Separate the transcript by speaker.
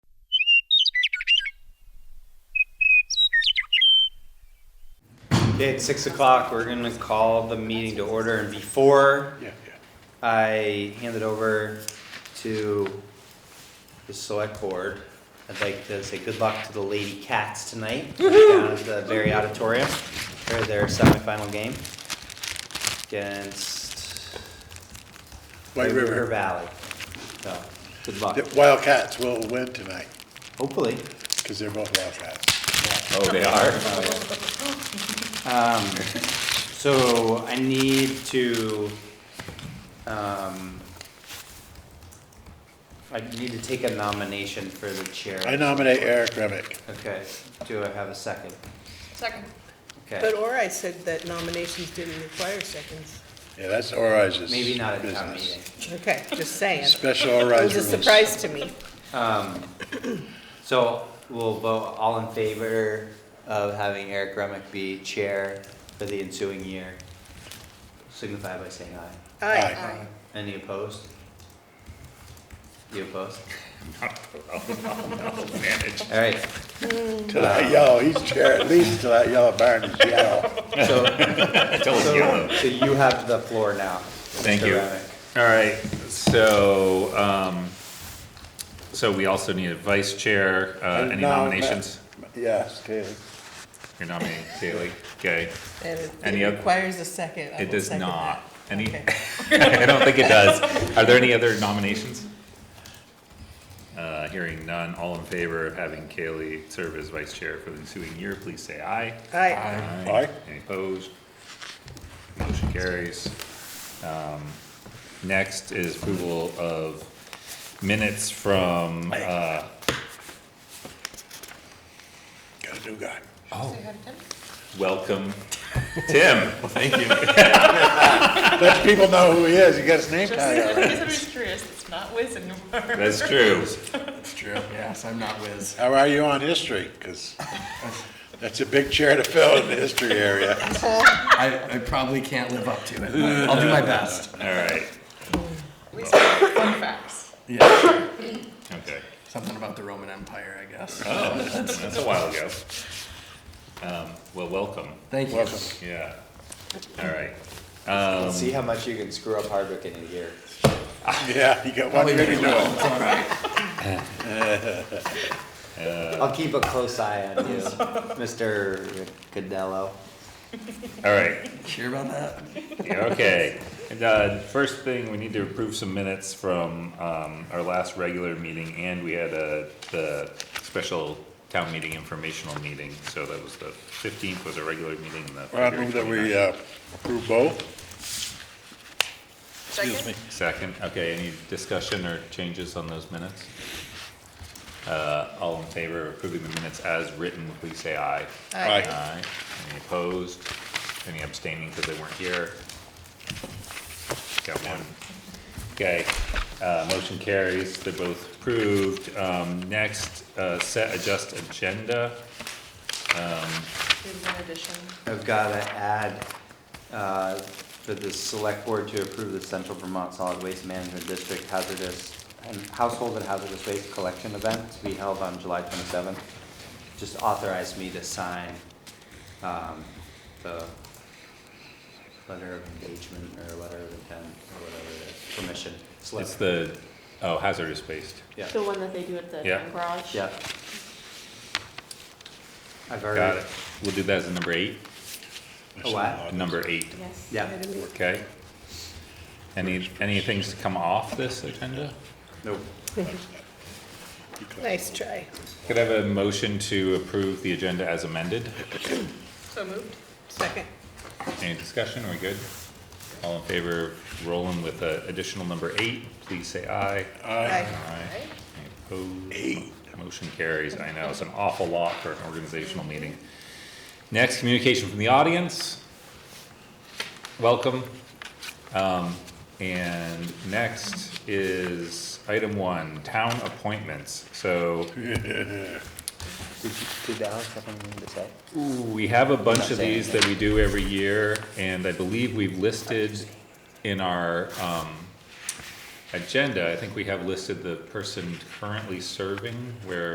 Speaker 1: Okay, at six o'clock, we're gonna call the meeting to order, and before
Speaker 2: Yeah,
Speaker 1: I hand it over to the select board, I'd like to say good luck to the Lady Cats tonight, down at the Berry Auditorium, for their semifinal game against
Speaker 2: White River.
Speaker 1: Valley, so, good luck,
Speaker 2: The Wildcats will win tonight,
Speaker 1: hopefully.
Speaker 2: because they're both Wildcats.
Speaker 3: Oh, they are?
Speaker 1: Um, so I need to, um, I need to take a nomination for the chair.
Speaker 2: I nominate Eric Remick.
Speaker 1: Okay, do I have a second?
Speaker 4: Second.
Speaker 5: But
Speaker 1: Okay,
Speaker 5: or I said that nominations didn't require seconds.
Speaker 2: Yeah, that's Orize's business.
Speaker 1: maybe not at town meeting.
Speaker 5: Okay, just saying.
Speaker 2: Special
Speaker 5: It
Speaker 2: Orize
Speaker 5: was a
Speaker 2: rules.
Speaker 5: surprise to me.
Speaker 1: Um, so we'll vote all in favor of having Eric Remick be chair for the ensuing year. Signify by saying aye.
Speaker 5: Aye.
Speaker 4: Aye.
Speaker 1: Any opposed? You opposed? All right,
Speaker 2: Till that yellow, he's chair, at least till that yellow barn is yellow.
Speaker 1: so,
Speaker 3: I told
Speaker 1: so, so you have the floor now.
Speaker 3: Thank
Speaker 1: Mr.
Speaker 3: you.
Speaker 1: Remick.
Speaker 3: All right, so, um, so we also need a vice chair, uh, any
Speaker 2: No,
Speaker 3: nominations?
Speaker 2: Yes, Kaylee.
Speaker 3: You're nominating Kaylee, okay.
Speaker 5: And it-
Speaker 3: Any
Speaker 5: it
Speaker 3: oth-
Speaker 5: requires a second. I
Speaker 3: It
Speaker 5: will
Speaker 3: does
Speaker 5: second
Speaker 3: not. Any,
Speaker 5: Okay.
Speaker 3: I don't think it does. Are there any other nominations? Uh, hearing none, all in favor of having Kaylee serve as vice chair for the ensuing year, please say aye.
Speaker 5: that. Aye.
Speaker 2: Aye.
Speaker 3: Any opposed? Motion carries. Um, Next is approval of minutes from, uh,
Speaker 2: Got a new guy.
Speaker 4: So you had it done?
Speaker 3: welcome, Tim. Thank you.
Speaker 2: Let people know who he is, he got his name tag
Speaker 4: Just,
Speaker 2: already.
Speaker 4: in case anybody's curious, it's not Wiz anymore.
Speaker 3: That's true.
Speaker 6: It's true, yes, I'm not whiz.
Speaker 2: How are you on history? Because that's a big chair to fill in the history area.
Speaker 6: I, I probably can't live up to it, but I'll do my best.
Speaker 3: All right,
Speaker 4: At least fun facts.
Speaker 6: Yeah,
Speaker 3: okay.
Speaker 6: something about the Roman Empire, I guess.
Speaker 3: Oh, that's that's a while ago. Um, Well, welcome,
Speaker 6: Thank you.
Speaker 2: Welcome.
Speaker 3: yeah. All right. Um,
Speaker 1: Let's see how much you can screw up Hardwick in a year.
Speaker 2: Yeah, you got one
Speaker 6: Probably
Speaker 2: thing to
Speaker 6: really
Speaker 2: do.
Speaker 6: well, it's all right.
Speaker 3: uh,
Speaker 1: I'll keep a close eye on you, Mr. Cadello.
Speaker 3: All right,
Speaker 6: Sure about that?
Speaker 3: Yeah, okay. And, uh, first thing, we need to approve some minutes from, um, our last regular meeting, and we had a, the special town meeting informational meeting, so that was the fifteenth was a regular meeting, and the
Speaker 2: Well, I
Speaker 3: February
Speaker 2: move that we
Speaker 3: 29th.
Speaker 2: uh, approve both.
Speaker 4: Second.
Speaker 3: Second, okay, any discussion or changes on those minutes? Uh, all in favor of approving the minutes as written, please say aye.
Speaker 2: Aye.
Speaker 3: Aye. Any opposed? Any abstaining because they weren't here? Got one. Okay, uh, motion carries, they're both approved. Um, next, uh, set adjust agenda.
Speaker 4: There's one addition.
Speaker 1: I've gotta add, uh, for the select board to approve the Central Vermont Solid Waste Management District hazardous and household and hazardous waste collection event to be held on July twenty-seventh. Just authorized me to sign, um, the letter of engagement or letter of intent or whatever it is, permission. slip.
Speaker 3: It's the, oh, hazardous waste.
Speaker 1: Yeah,
Speaker 7: The one that they do at the
Speaker 3: Yeah.
Speaker 7: town garage?
Speaker 1: yeah. I've already.
Speaker 3: Got it. We'll do that as a number eight,
Speaker 1: A what?
Speaker 3: number eight.
Speaker 7: Yes.
Speaker 1: Yeah,
Speaker 3: Okay. Any, any things to come off this agenda?
Speaker 1: nope.
Speaker 5: Nice try.
Speaker 3: Could I have a motion to approve the agenda as amended?
Speaker 4: So moved.
Speaker 5: Second.
Speaker 3: Any discussion, we good? All in favor of rolling with uh, additional number eight, please say aye.
Speaker 5: Aye.
Speaker 3: Aye. Any Opposed? Motion carries, I know, it's an awful lot for an organizational meeting. Next, communication from the audience. Welcome. Um, and next is item one, town appointments. So
Speaker 1: Did you, did Alex have anything to say?
Speaker 3: We have a bunch of
Speaker 1: Not saying
Speaker 3: these that we do every year, and I believe we've listed in our, um, agenda, I think we have listed the person currently serving, where